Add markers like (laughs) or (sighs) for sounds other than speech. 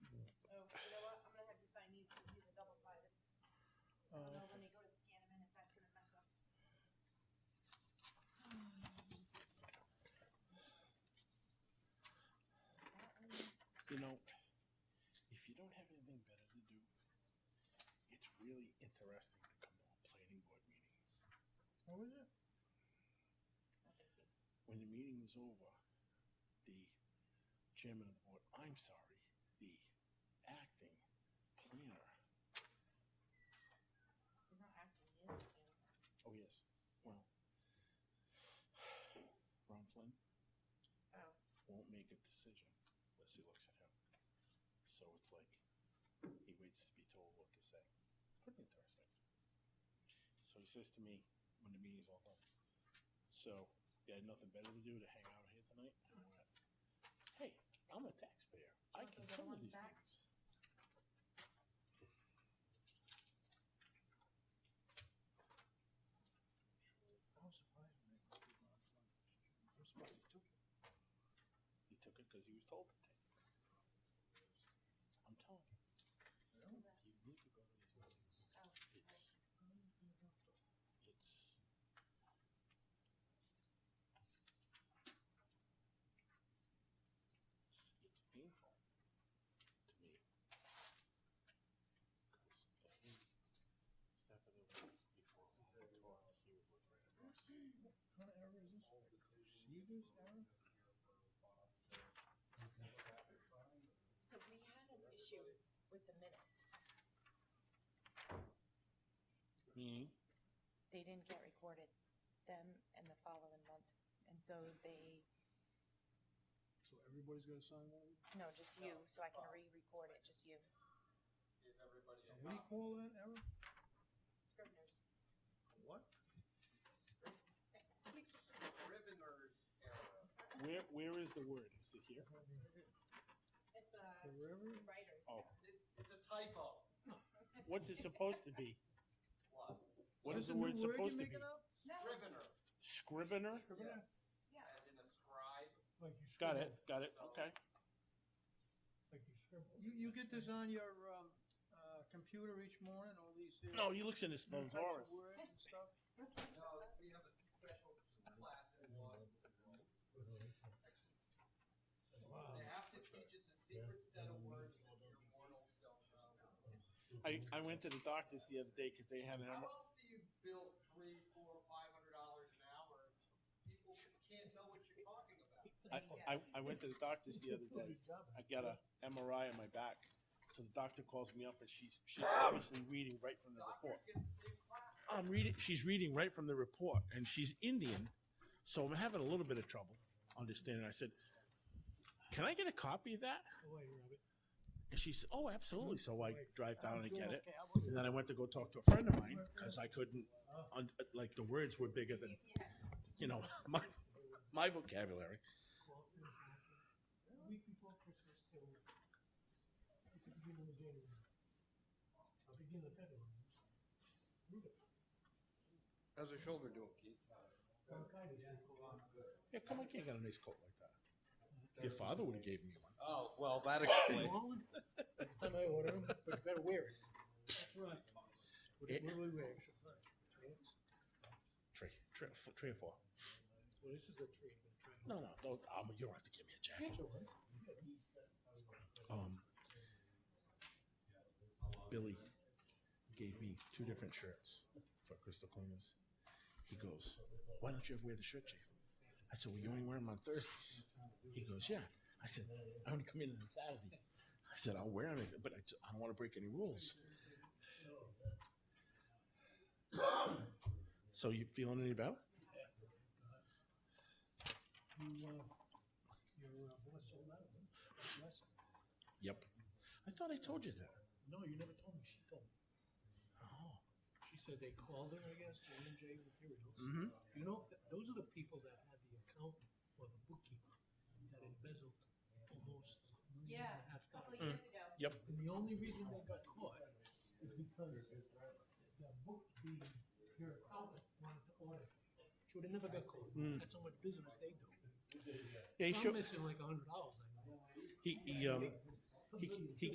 Uh, really interesting to come to a planning board meeting. What was it? When the meeting was over, the chairman of the board, I'm sorry, the acting planner, It's not acting, it is planning. oh yes, well, (sighs) Ron Flynn Oh, won't make a decision unless he looks at him. So it's like he waits to be told what to say. Pretty interesting. So he says to me when the meeting's all done, so you had nothing better to do to hang out here tonight? And I went, hey, I'm a taxpayer. I Want those can other come to ones these back? meetings. I'm surprised when they voted on Flynn. I'm surprised they took it. He took it because he was told to take it. I'm telling you, Really? you need to go to these meetings. oh. It's, it's, it's, it's painful to me. 'Cause every step of the way before we had talk, he would look right at us. What kind of error is this? Crusaders error? So we had an issue with the minutes. Me? They didn't get recorded, them and the following month. And so they, So everybody's gonna sign one? no, just you, so I can re-record it, just you. give everybody a What do you call that error? Scribners. What? Scrivener's error. Where, where is the word? Is it here? (laughs) It's, uh, Forever? writers. (laughs) Oh. It, it's a typo. What's it supposed to be? What? What is the That's a new word you're supposed to be? making up? Scrivener. Scrivener? Scribbler? Yes. Yeah. As in a scribe. Like you Got scribble. it, got it, okay. Like you scribble. You, you get this on your, um, uh, computer each morning, all these. uh, No, he looks in his types of thesaurus. words and stuff? No, we have a special class in law school. They have to teach us a secret set of words that your mortals don't know. I, I went to the doctor's the other day because they had an How M- else do you bill three, four, five hundred dollars an hour if people can't know what you're talking about? I, I, I went to the doctor's the other day. I got a MRI on my back. So the doctor calls me up and she's she's obviously reading right from the report. Doctors get the same class. I'm reading she's reading right from the report and she's Indian. So I'm having a little bit of trouble understanding. I said, Can I get a copy of that? Away, Robert. And she said, Oh, absolutely. So I drive down and I get it. Okay, how about you? And then I went to go talk to a friend of mine because I couldn't, un- like, the words were bigger than, Yes. you know, (laughs) my, my vocabulary. A week before Christmas till, it's the beginning of January. I'll begin the February. Rudolph. How's your shoulder doing, Keith? Bronchitis. Yeah, come on, can't get a nice coat like that. Your father would have gave me one. Oh, well, that explains. Rolling. Next time I order them, but you better wear it. That's right. What It- what do we wear? Three, three, f- three or four. Well, this is a tree, but a tree. No, no, no. Um, you don't have to give me a jacket. Um, Billy gave me two different shirts for Crystal Cleaners. He goes, "Why don't you ever wear the shirt, Chief?" I said, "Well, you only wear them on Thursdays." He goes, "Yeah." I said, "I only come in on Saturdays." I said, "I'll wear them, if, but I, ju- I don't want to break any rules." so you feeling any better? You, uh, your uh, voice sold out. Bless her. Yep. I thought I told you that. No, you never told me. She told me. Oh. She said they called her, I guess, J and J Materials. Mhm. You know, th- those are the people that had the account or the bookkeeper that embezzled almost a million Yeah, and a half a couple of dollars. years ago. Yep. And the only reason they got caught is because the book, the, your accountant wanted to audit. She would have never got caught. That's how much business they do. Hmm. Yeah, he I'm showed, um, missing like a hundred dollars, I know. he, he, um, he, he